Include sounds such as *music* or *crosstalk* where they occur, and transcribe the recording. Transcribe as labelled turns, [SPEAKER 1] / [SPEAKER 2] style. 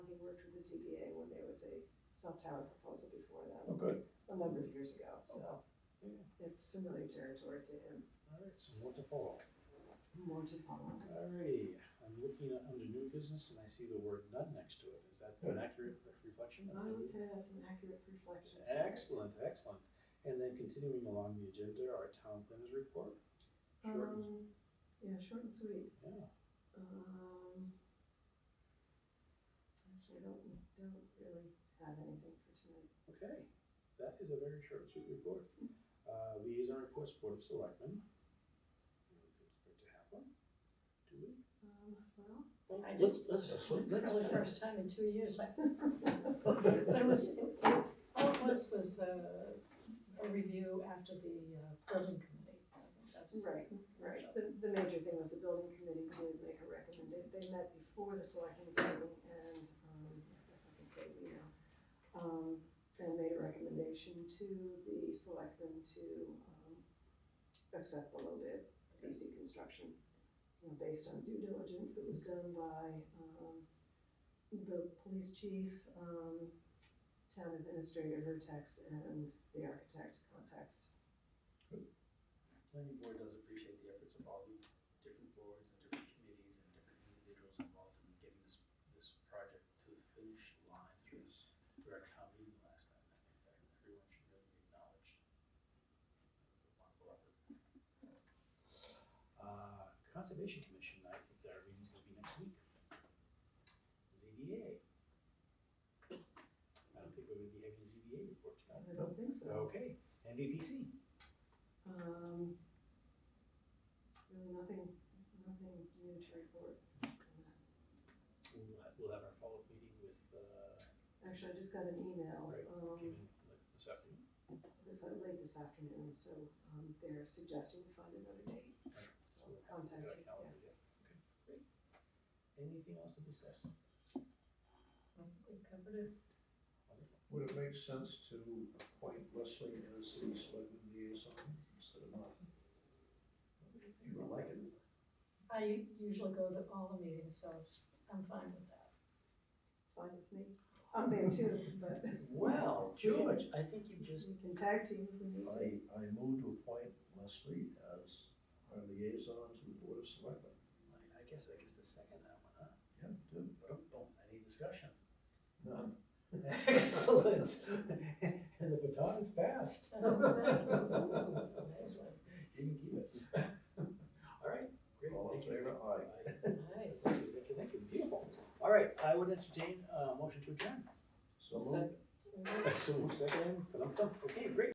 [SPEAKER 1] ZBA when there was a cell tower proposal before
[SPEAKER 2] Oh,
[SPEAKER 1] them,
[SPEAKER 2] good.
[SPEAKER 1] a number of years ago, so
[SPEAKER 2] Yeah.
[SPEAKER 1] it's familiar territory to him,
[SPEAKER 3] All right, so more to follow.
[SPEAKER 1] more to follow.
[SPEAKER 3] All righty, I'm looking at under new business and I see the word none next to it. Is that an accurate reflection? of
[SPEAKER 4] Oh,
[SPEAKER 1] I would
[SPEAKER 3] the-
[SPEAKER 1] say that's an accurate reflection. sorry.
[SPEAKER 3] Excellent, excellent. And then continuing along the agenda, our town planners report. Short and-
[SPEAKER 1] Um, yeah, short and sweet.
[SPEAKER 3] Yeah,
[SPEAKER 1] Um, actually, I don't, don't really have anything for tonight.
[SPEAKER 3] okay. That is a very short, and sweet report. Uh, liaison reports, Board of Selectmen. I
[SPEAKER 4] Mm-hmm.
[SPEAKER 3] don't think it's Good to have one. Do we?
[SPEAKER 1] Um, well,
[SPEAKER 4] I
[SPEAKER 2] Let's-
[SPEAKER 4] did,
[SPEAKER 2] let's-
[SPEAKER 4] this
[SPEAKER 2] let's-
[SPEAKER 4] probably first time in two years. *laughs* I- But it was, it- all it was was uh, a review after the uh, building committee. That's-
[SPEAKER 1] right, right. The, the major thing was the building committee did make a recommendation. They met before the selectmen's meeting and, um, I guess I can say we now. Um, and made a recommendation to the selectmen to, um, accept the low bid, PC Construction. You know, based on due diligence that was done by, um, the police chief, um, town administrator, Vertex, and the architect, Context.
[SPEAKER 5] Planning board does appreciate the efforts of all the different boards and different committees and different individuals involved in getting this, this project to the finish line through through our town meeting last time. I think that everyone should really be acknowledged. Wonderful effort.
[SPEAKER 3] Uh, Conservation Commission, I think their meeting's gonna be next week. ZBA. I don't think we're gonna be having a ZBA report tonight.
[SPEAKER 1] I don't think so.
[SPEAKER 3] Okay, MVPC,
[SPEAKER 1] Um, really nothing, nothing new to report on that.
[SPEAKER 3] we'll have, we'll have our follow-up meeting with, uh,
[SPEAKER 1] Actually, I just got an email,
[SPEAKER 3] Right, came
[SPEAKER 1] um,
[SPEAKER 3] in like this afternoon.
[SPEAKER 1] this, uh, late this afternoon, so, um, they're suggesting we find another date.
[SPEAKER 3] Right.
[SPEAKER 1] So
[SPEAKER 3] So
[SPEAKER 1] I'll
[SPEAKER 3] we'll have to
[SPEAKER 1] contact
[SPEAKER 3] get our
[SPEAKER 1] you, yeah.
[SPEAKER 3] calendar, yeah. Okay, great. Anything else to discuss?
[SPEAKER 4] I think We covered it.
[SPEAKER 3] Wonderful.
[SPEAKER 2] Would it make sense to appoint Leslie as the selectman liaison instead of Martha? You would like it.
[SPEAKER 4] I usually go to all the meetings, so I'm fine with that.
[SPEAKER 1] It's fine with me. I'm there too, but
[SPEAKER 3] Well, George, I think you just,
[SPEAKER 1] we can tag team if we need to.
[SPEAKER 2] I, I move to appoint Leslie as our liaison to the board of selectmen.
[SPEAKER 3] I- I guess, I guess the second that one, huh?
[SPEAKER 2] Yeah, do.
[SPEAKER 3] Boom, boom, any discussion? *laughs*
[SPEAKER 2] No.
[SPEAKER 3] Excellent. *laughs* And the baton is
[SPEAKER 4] *laughs*
[SPEAKER 3] passed. *laughs*
[SPEAKER 4] Nice one.
[SPEAKER 3] You can keep it. *laughs* All right, great,
[SPEAKER 2] All in
[SPEAKER 3] thank you.
[SPEAKER 2] favor, aye.
[SPEAKER 4] Aye.
[SPEAKER 3] Thank you, thank you, thank you, beautiful. All right, I would entertain a motion to adjourn.
[SPEAKER 2] So
[SPEAKER 4] So-
[SPEAKER 2] moved.
[SPEAKER 4] so-
[SPEAKER 3] So, second, okay, great.